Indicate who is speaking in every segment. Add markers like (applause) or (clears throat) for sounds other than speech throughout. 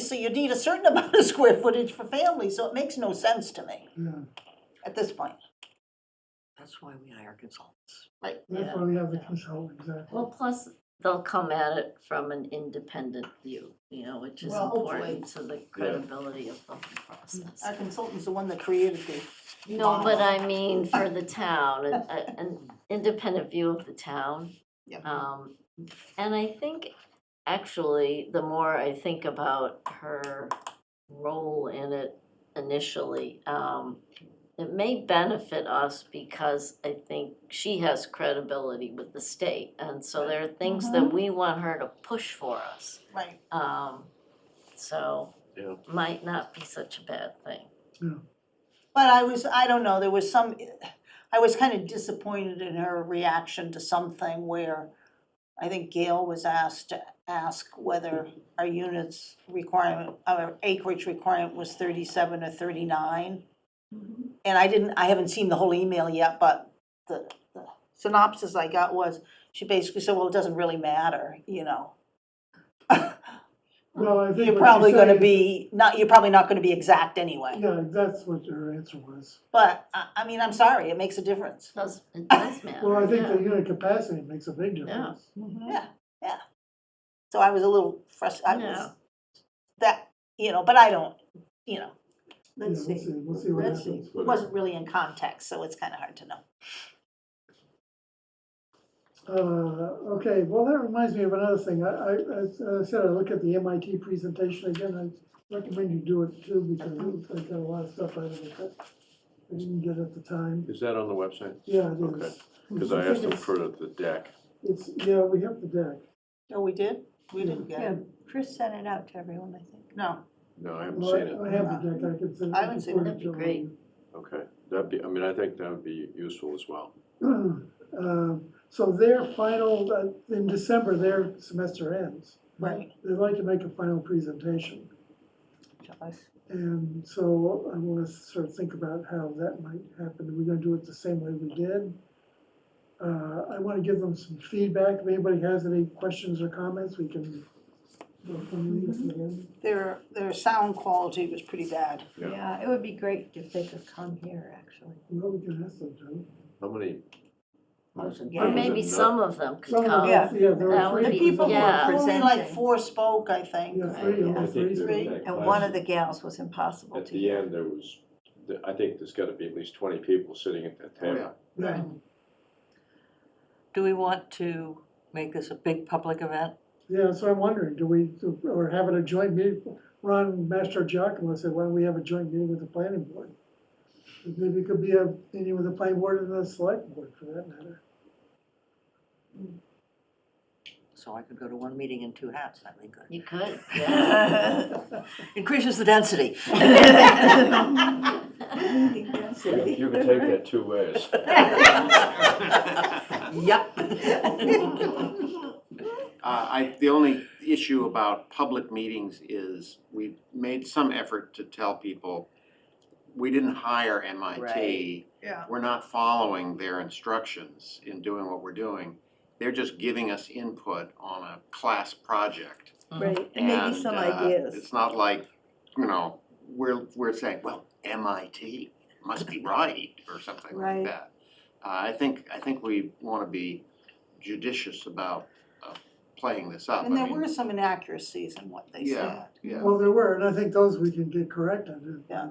Speaker 1: So you need a certain (laughs) amount of square footage for families, so it makes no sense to me
Speaker 2: Yeah,
Speaker 1: at this point.
Speaker 3: That's why we hire consultants.
Speaker 1: Right.
Speaker 2: that's why we have the consultant, exactly.
Speaker 4: Well, plus, they'll come at it from an independent view, you know, which is
Speaker 1: Well, hopefully.
Speaker 4: important to the credibility of the whole process.
Speaker 1: Our consultant's the one that created the,
Speaker 4: No, but I mean, for the town, an, a- an independent view of the town.
Speaker 1: Yeah.
Speaker 2: Mm-hmm.
Speaker 4: Um, and I think, actually, the more I think about her role in it initially, um, it may benefit us because I think she has credibility with the state. And so there are things
Speaker 2: Mm-hmm.
Speaker 4: that we want her to push for us.
Speaker 1: right,
Speaker 4: Um, so
Speaker 3: Yeah.
Speaker 4: might not be such a bad thing.
Speaker 1: but I was, I don't know, there was some, I was kind of disappointed in her reaction to something where I think Gail was asked to ask whether our units requirement, our acreage requirement was thirty-seven or thirty-nine.
Speaker 2: Mm-hmm.
Speaker 1: And I didn't, I haven't seen the whole email yet, but the, the synopsis I got was, she basically said, well, it doesn't really matter, you know.
Speaker 2: Well, I think what
Speaker 1: You're
Speaker 2: she's
Speaker 1: probably gonna
Speaker 2: saying-
Speaker 1: be, not, you're probably not gonna be exact anyway,
Speaker 2: Yeah, that's what her answer was.
Speaker 1: but, I, I mean, I'm sorry, it makes a difference.
Speaker 4: Does, it does matter.
Speaker 2: Well, I think
Speaker 4: yeah.
Speaker 2: the unit capacity makes a big difference.
Speaker 1: Yeah, Mm-hmm. yeah. So I was a little frustrated, I was,
Speaker 4: Yeah.
Speaker 1: that, you know, but I don't, you know,
Speaker 2: Yeah,
Speaker 1: let's
Speaker 2: we'll
Speaker 1: see.
Speaker 2: We'll see what
Speaker 1: Let's
Speaker 2: happens.
Speaker 1: It wasn't really in context, so it's kinda hard to know.
Speaker 2: Uh, okay, well, that reminds me of another thing. I, I, as I said, I look at the MIT presentation again. I recommend you do it too because it looks like I got a lot of stuff out of it that I didn't get at the time.
Speaker 5: Is that on the website?
Speaker 2: Yeah, it
Speaker 5: Okay,
Speaker 2: is.
Speaker 5: because I
Speaker 2: think
Speaker 5: asked them
Speaker 2: it's-
Speaker 5: for the deck.
Speaker 2: It's, yeah, we have the deck.
Speaker 1: Oh, we did? We didn't get
Speaker 6: Yeah,
Speaker 1: it,
Speaker 6: Chris sent it out to everyone, I think.
Speaker 1: no,
Speaker 5: No, I haven't
Speaker 2: Well,
Speaker 5: seen it.
Speaker 2: I have the deck, I could send.
Speaker 1: I haven't seen it.
Speaker 4: That'd be great.
Speaker 5: Okay, that'd be, I mean, I think that would be useful as well.
Speaker 2: (clears throat) Um, So their final, uh, in December, their semester ends.
Speaker 1: right,
Speaker 2: They'd like to make a final presentation.
Speaker 6: To us.
Speaker 2: And so I want to sort of think about how that might happen. Are we going to do it the same way we did? Uh, I want to give them some feedback. If anybody has any questions or comments, we can go from this again.
Speaker 1: their, their sound quality was pretty bad.
Speaker 5: Yeah.
Speaker 6: Yeah, it would be great if they could come here, actually.
Speaker 2: Well, we can ask them to.
Speaker 5: How many?
Speaker 4: Or
Speaker 5: Yeah.
Speaker 4: maybe some of them could
Speaker 2: Some of
Speaker 4: come.
Speaker 2: them-
Speaker 6: Yeah.
Speaker 2: Yeah, there
Speaker 4: Oh, That
Speaker 2: were
Speaker 4: would
Speaker 2: three.
Speaker 6: The people who
Speaker 4: yeah.
Speaker 6: were
Speaker 1: Only like
Speaker 6: presenting,
Speaker 1: four spoke, I think.
Speaker 2: Yeah, three,
Speaker 6: I
Speaker 2: only
Speaker 5: think
Speaker 2: three.
Speaker 5: there-
Speaker 2: spoke.
Speaker 1: Three.
Speaker 6: and one of the gals was impossible
Speaker 5: At
Speaker 6: to
Speaker 5: the
Speaker 6: (laughs) hear.
Speaker 5: end, there was, th- I think there's got to be at least twenty people sitting at that
Speaker 3: Oh,
Speaker 5: table.
Speaker 2: Yeah,
Speaker 7: Do we want to make this a big public event?
Speaker 2: yeah, so I'm wondering, do we, do- or having a joint meeting, Ron Master Giacomo said, why don't we have a joint meeting with the planning board? Maybe it could be a meeting with the planning board and the select board for that matter.
Speaker 7: So I could go to one meeting in two hats, that'd be good.
Speaker 4: (laughs) You could, yeah.
Speaker 7: Increases the density.
Speaker 2: (laughs)
Speaker 5: You you can take that two ways.
Speaker 7: Yep. (laughs)
Speaker 8: Uh, I, the only issue about public meetings is we've made some effort to tell people, we didn't hire
Speaker 7: Right.
Speaker 8: MIT.
Speaker 1: Yeah.
Speaker 8: We're not following their instructions in doing what we're doing. They're just giving us input on a class project.
Speaker 6: Right, and maybe some
Speaker 8: uh,
Speaker 6: ideas.
Speaker 8: It's not like, you know, we're, we're saying, well, MIT
Speaker 6: (laughs)
Speaker 8: must be right or something
Speaker 6: Right.
Speaker 8: like that. Uh, I think, I think we wanna be judicious about, uh, playing this up.
Speaker 1: And
Speaker 8: I
Speaker 1: there
Speaker 8: mean,
Speaker 1: were some inaccuracies in what they said.
Speaker 8: Yeah. Yeah,
Speaker 2: Well, there were, and I think those we can get corrected.
Speaker 1: Yeah.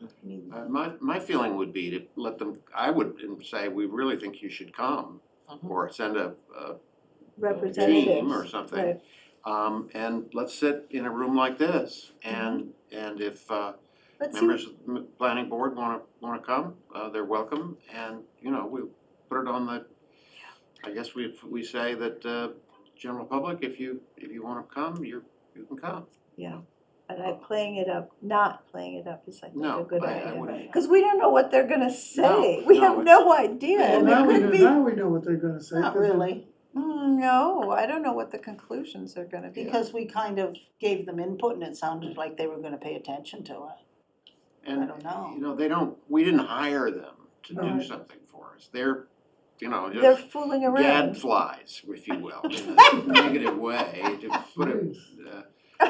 Speaker 1: I mean,
Speaker 8: Uh, my, my feeling would be to let them, I would say, we really think you should come
Speaker 7: Mhm.
Speaker 8: or send a, a team or
Speaker 6: Mm-hmm. Representatives,
Speaker 8: something.
Speaker 6: right,
Speaker 8: Um, and let's sit in a room like this and,
Speaker 6: Mm-hmm.
Speaker 8: and if, uh,
Speaker 6: let's see,
Speaker 8: members of the m- planning board wanna, wanna come, uh, they're welcome, and, you know, we put it on the, I guess we, we say that, uh, general public, if you, if you wanna come, you're, you can come.
Speaker 6: yeah, and I, playing it up, not playing it up is I think a
Speaker 8: No,
Speaker 6: good
Speaker 8: I, I
Speaker 6: idea.
Speaker 8: wouldn't.
Speaker 6: Cause we don't know what they're gonna say, we
Speaker 8: no,
Speaker 6: have
Speaker 8: it's-
Speaker 6: no idea,
Speaker 8: Well,
Speaker 6: and
Speaker 2: Now we
Speaker 6: it
Speaker 2: know-
Speaker 6: could be,
Speaker 2: Now we know what they're gonna say.
Speaker 1: Not
Speaker 2: 'cause it-
Speaker 1: really,
Speaker 6: Mm, no, I don't know what the conclusions are gonna be.
Speaker 1: because we kind of gave them input and it sounded like they were gonna pay attention to it.
Speaker 8: And,
Speaker 1: I don't know.
Speaker 8: You know, they don't, we didn't hire them to do
Speaker 2: Right.
Speaker 8: something for us, they're, you know,
Speaker 6: They're
Speaker 8: just
Speaker 6: fooling around. (laughs)
Speaker 8: gadflies, if you will, in a negative way, to put it,
Speaker 2: Jeez.
Speaker 8: uh,